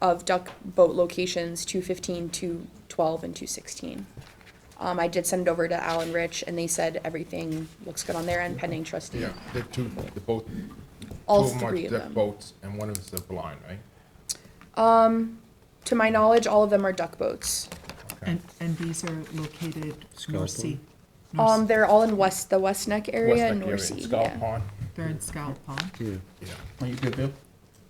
of duck boat locations, two fifteen, two twelve, and two sixteen. Um, I did send it over to Alan Rich, and they said everything looks good on their end pending trustee. Yeah, the two, the boat. All two three of deck them. Boats, and one of them's the blind, right? To my knowledge, all of them are duck boats. Okay. And, and these are located North Sea. North- Um, they're all in West, the West Neck area West and Neck area, North Sea, Scott yeah. Pond, They're in Scallop Pond. Yeah. yeah. Are you good, Bill?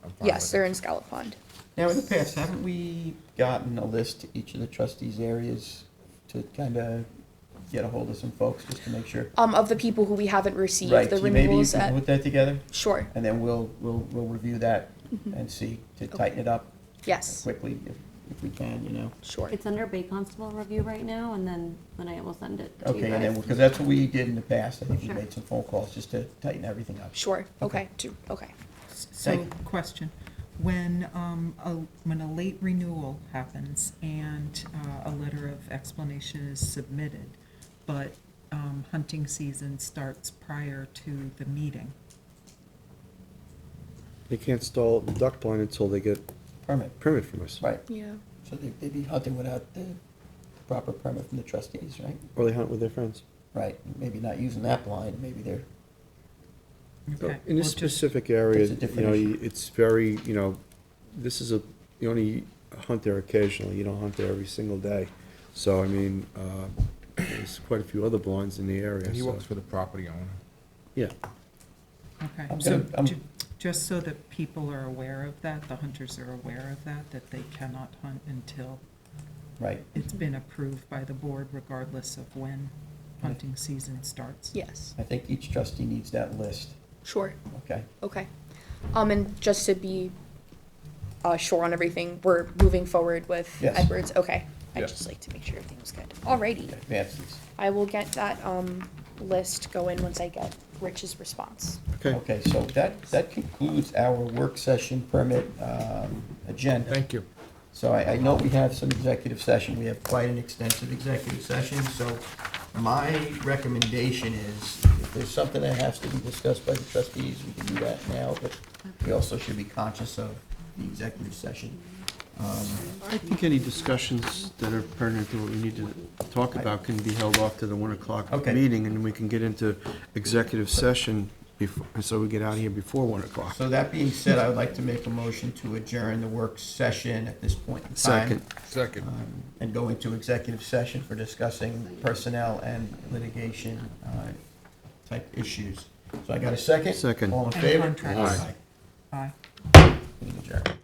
I'm fine Yes, with they're it. in Scallop Pond. Now, in the past, haven't we gotten a list to each of the trustees' areas to kind of get a hold of some folks just to make sure? Um, of the people who we haven't Right, received the so maybe you renewals can at, put that together, sure, and then we'll, we'll, we'll review that Mm-hmm. and see to tighten it up yes, quickly if, if we can, you know? sure. It's under Bay Constable review right now, and then when I will send it to you Okay, and then, guys. because that's what we did in the past, I think we Sure. made some phone calls just to tighten everything up. Sure, okay, do- okay. So, Thank question, when, um, a, when a late renewal happens and, uh, a letter of explanation is submitted, but, um, hunting season starts prior to the meeting, They can't stall the duck blind until they get Permit, permit from us. right, Yeah. so they- they'd be hunting without the proper permit from the trustees, right? Or they hunt with their friends. Right, maybe not using that blind, maybe they're, okay? In this well, just- specific area, It's a you different know, issue. you- it's very, you know, this is a, you only hunt there occasionally, you don't hunt there every single day. So, I mean, uh, there's quite a few other blinds in the area, And he so, works for the property owner. yeah. Okay, I'm so gonna- I'm- ju- just so that people are aware of that, the hunters are aware of that, that they cannot hunt until right, it's been approved by the board regardless of when hunting season starts. Yes, I think each trustee needs that list, sure. okay? Okay. Um, and just to be, uh, sure on everything, we're moving forward with Yes. Edwards, okay? I'd Yes. just like to make sure everything was good. Alrighty, Advance these, I will get that, um, list going once I get Rich's response. Okay, okay, so that, that concludes our work session permit, um, agenda. Thank you. So I, I know we have some executive session, we have quite an extensive executive session, so my recommendation is, if there's something that has to be discussed by the trustees, we can do that now, but we also should be conscious of the executive session. Um, I think any discussions that are pertinent to what we need to talk about can be held off to the one o'clock Okay. meeting, and we can get into executive session before, so we get out of here before one o'clock. So that being said, I would like to make a motion to adjourn the work session at this point in time. Second. Second. um, And go into executive session for discussing personnel and litigation uh, type issues. So I got a second? Second. All in And favor? contracts. Aye. Meeting adjourned.